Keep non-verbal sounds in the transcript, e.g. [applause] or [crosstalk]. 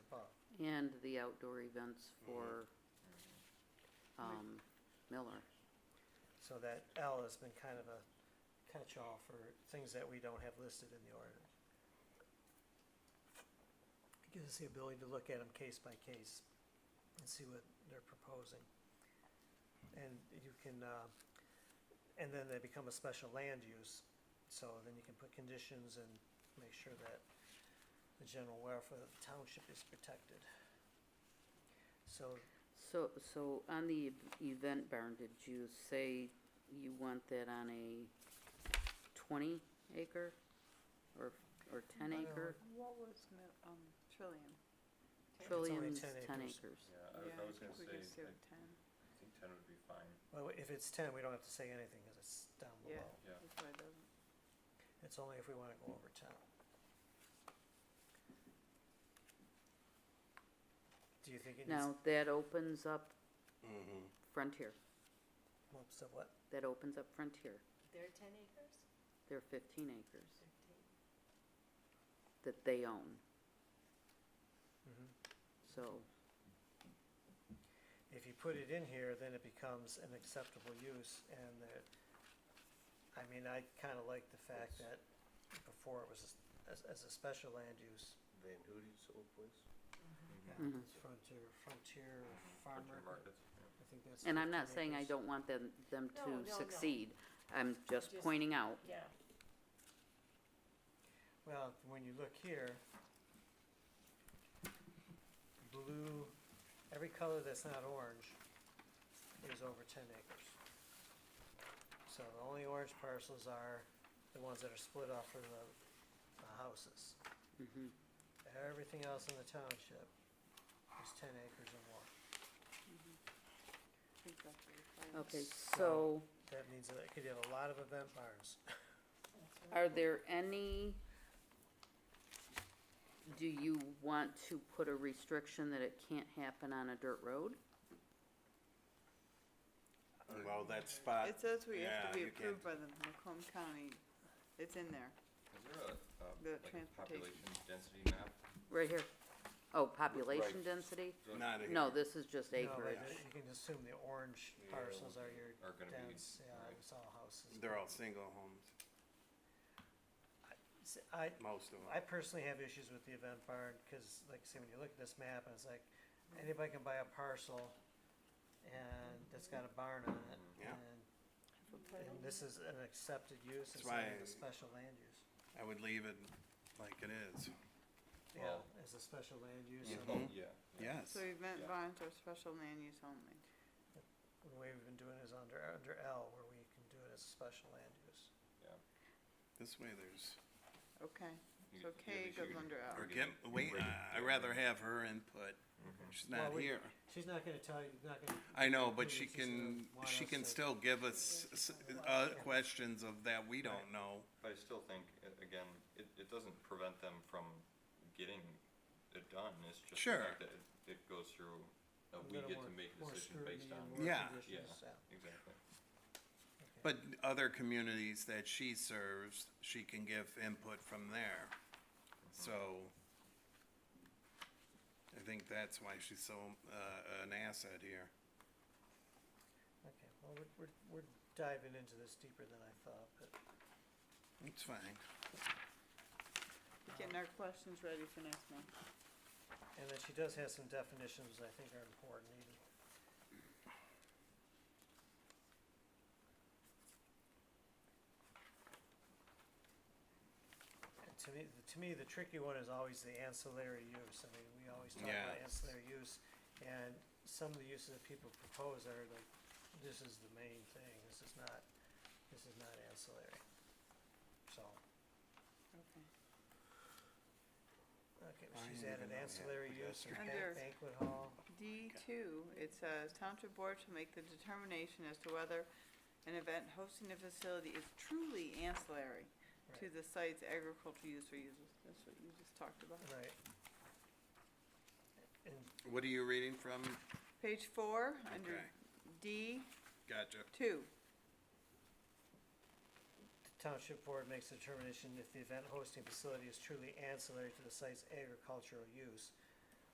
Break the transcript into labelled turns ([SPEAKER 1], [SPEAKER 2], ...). [SPEAKER 1] and the outdoor events
[SPEAKER 2] Mm-hmm.
[SPEAKER 1] for, um, Miller.
[SPEAKER 3] So that L has been kind of a catch-all for things that we don't have listed in the ordinance. It Gives us the ability to look at them case by case and see what they're proposing. And you can, uh, and then they become a special land use, so then you can put conditions and make sure that the general welfare of the township is protected. So
[SPEAKER 1] So, so on the ev- event barn, did you say you want that on a twenty acre or, or ten
[SPEAKER 3] I don't
[SPEAKER 1] acre?
[SPEAKER 4] What was, mil- um, trillion? Ten?
[SPEAKER 3] Trillion. only
[SPEAKER 1] Trillions,
[SPEAKER 3] 10
[SPEAKER 1] ten
[SPEAKER 3] acres.
[SPEAKER 1] acres.
[SPEAKER 5] Yeah, I was,
[SPEAKER 4] Yeah, I
[SPEAKER 5] I was
[SPEAKER 4] think we
[SPEAKER 5] gonna say, uh,
[SPEAKER 4] just do
[SPEAKER 5] I
[SPEAKER 4] ten,
[SPEAKER 5] think ten would be fine,
[SPEAKER 3] Well, if it's ten, we don't have to say anything, cause it's down
[SPEAKER 4] Yeah.
[SPEAKER 3] below.
[SPEAKER 5] yeah.
[SPEAKER 4] that's why it doesn't,
[SPEAKER 3] It's only if we wanna go over ten. Do you think it needs,
[SPEAKER 1] Now, that opens up
[SPEAKER 6] Mm-hmm.
[SPEAKER 1] Frontier,
[SPEAKER 3] whoops, so what,
[SPEAKER 1] that opens up Frontier,
[SPEAKER 2] They're ten acres?
[SPEAKER 1] they're fifteen acres
[SPEAKER 2] Fifteen.
[SPEAKER 1] that they own,
[SPEAKER 3] mhm.
[SPEAKER 1] so,
[SPEAKER 3] If you put it in here, then it becomes an acceptable use and that, I mean, I kinda like the fact that before it was as, as a special land use.
[SPEAKER 6] Van Hoody's old place?
[SPEAKER 4] Mm-hmm.
[SPEAKER 1] mhm.
[SPEAKER 3] Frontier, frontier
[SPEAKER 5] Or two
[SPEAKER 3] farmer,
[SPEAKER 5] markets, yeah.
[SPEAKER 3] I think that's.
[SPEAKER 1] and I'm not
[SPEAKER 3] 15
[SPEAKER 1] saying I
[SPEAKER 3] acres.
[SPEAKER 1] don't want them, them
[SPEAKER 2] No, no,
[SPEAKER 1] to
[SPEAKER 2] no.
[SPEAKER 1] succeed. I'm just
[SPEAKER 2] Just-
[SPEAKER 1] pointing out,
[SPEAKER 2] Yeah.
[SPEAKER 3] Well, when you look here, blue, every color that's not orange is over ten acres. So the only orange parcels are the ones that are split off from the, the houses.
[SPEAKER 1] mhm,
[SPEAKER 3] Everything else in the township is ten acres or more.
[SPEAKER 4] I think that's the requirement.
[SPEAKER 1] okay,
[SPEAKER 3] So-
[SPEAKER 1] so.
[SPEAKER 3] That means that it could have a lot of event barns.
[SPEAKER 1] Are there any, do you want to put a restriction that it can't happen on a dirt road?
[SPEAKER 6] Well, that spot.
[SPEAKER 4] It says we have
[SPEAKER 6] yeah,
[SPEAKER 4] to be
[SPEAKER 6] you can't-
[SPEAKER 4] approved by the Macomb County, it's in there,
[SPEAKER 5] Is there a, um,
[SPEAKER 4] The
[SPEAKER 5] like
[SPEAKER 4] transportation.
[SPEAKER 5] population density map?
[SPEAKER 1] Right here. Oh, population density?
[SPEAKER 5] So
[SPEAKER 6] Not in
[SPEAKER 1] No,
[SPEAKER 6] here.
[SPEAKER 1] this is just
[SPEAKER 3] No, but
[SPEAKER 1] acreage.
[SPEAKER 3] You can assume the orange
[SPEAKER 6] Yeah,
[SPEAKER 3] parcels are your
[SPEAKER 5] Are gonna be,
[SPEAKER 3] dense, yeah,
[SPEAKER 5] right.
[SPEAKER 3] it's all houses.
[SPEAKER 6] They're all single homes,
[SPEAKER 3] S- I,
[SPEAKER 6] most of them.
[SPEAKER 3] I personally have issues with the event barn, cause like, see, when you look at this map, and it's like, anybody can buy a parcel and it's got a barn on it,
[SPEAKER 6] Yeah.
[SPEAKER 3] and,
[SPEAKER 4] for
[SPEAKER 3] and
[SPEAKER 4] planning.
[SPEAKER 3] this is an accepted use, it's
[SPEAKER 6] That's
[SPEAKER 3] not even a
[SPEAKER 6] why-
[SPEAKER 3] special land use.
[SPEAKER 6] I would leave it like it is.
[SPEAKER 3] Yeah,
[SPEAKER 5] Well-
[SPEAKER 3] as a special land use,
[SPEAKER 5] yeah,
[SPEAKER 3] and
[SPEAKER 6] Mhm.
[SPEAKER 5] yeah.
[SPEAKER 6] Yes.
[SPEAKER 4] So event
[SPEAKER 5] Yeah.
[SPEAKER 4] barns are special land use only.
[SPEAKER 3] the way we've been doing it is under, under L, where we can do it as a special land use.
[SPEAKER 6] This way there's,
[SPEAKER 4] Okay,
[SPEAKER 5] You-
[SPEAKER 4] so
[SPEAKER 5] you
[SPEAKER 4] K
[SPEAKER 5] should-
[SPEAKER 4] goes under L.
[SPEAKER 6] or
[SPEAKER 5] Okay.
[SPEAKER 6] get, wait,
[SPEAKER 5] Wait.
[SPEAKER 6] uh, I'd rather have her input. She's not
[SPEAKER 3] Well, we-
[SPEAKER 6] here.
[SPEAKER 3] She's not gonna tell you, not gonna,
[SPEAKER 6] I know, but
[SPEAKER 3] we
[SPEAKER 6] she
[SPEAKER 3] just uh, don't
[SPEAKER 6] can,
[SPEAKER 3] want
[SPEAKER 6] she
[SPEAKER 3] us
[SPEAKER 6] can
[SPEAKER 3] to-
[SPEAKER 6] still give us, s- uh, questions of that we don't know.
[SPEAKER 5] But I still think, a- again, it, it doesn't prevent them from getting it done, it's just the
[SPEAKER 6] Sure.
[SPEAKER 5] fact that it, it goes through, uh,
[SPEAKER 3] a
[SPEAKER 5] [laughs] we
[SPEAKER 3] little
[SPEAKER 5] get
[SPEAKER 3] more,
[SPEAKER 5] to make a
[SPEAKER 3] more
[SPEAKER 5] decision
[SPEAKER 3] scrutiny
[SPEAKER 5] based on.
[SPEAKER 3] and more
[SPEAKER 6] Yeah.
[SPEAKER 3] conditions, yeah.
[SPEAKER 5] Exactly.
[SPEAKER 3] okay.
[SPEAKER 6] But other communities that she serves, she can give input from there. So I think that's why she's so, uh, an asset here.
[SPEAKER 3] Okay, well, we're, we're, we're diving into this deeper than I thought, but
[SPEAKER 6] It's fine.
[SPEAKER 4] Getting our questions ready for next month.
[SPEAKER 3] And then she does have some definitions I think are important even. And to me, to me, the tricky one is always the ancillary use. I mean, we always talk about
[SPEAKER 6] Yeah.
[SPEAKER 3] ancillary use. And some of the uses that people propose are like, this is the main thing, this is not, this is not ancillary. So,
[SPEAKER 4] Okay.
[SPEAKER 3] okay,
[SPEAKER 6] I
[SPEAKER 3] she's added
[SPEAKER 6] didn't even know we had
[SPEAKER 3] ancillary use and ban-
[SPEAKER 4] pedestrian.
[SPEAKER 3] banquet hall.
[SPEAKER 4] D two, it says township board shall make the determination as to whether an event hosting a facility is truly ancillary to the site's agricultural use or uses. That's what you just talked about.
[SPEAKER 3] Right. And
[SPEAKER 6] What are you reading from?
[SPEAKER 4] Page four, under
[SPEAKER 6] Okay,
[SPEAKER 4] D
[SPEAKER 6] gotcha.
[SPEAKER 4] two.
[SPEAKER 3] the township board makes a determination if the event hosting facility is truly ancillary to the site's agricultural use.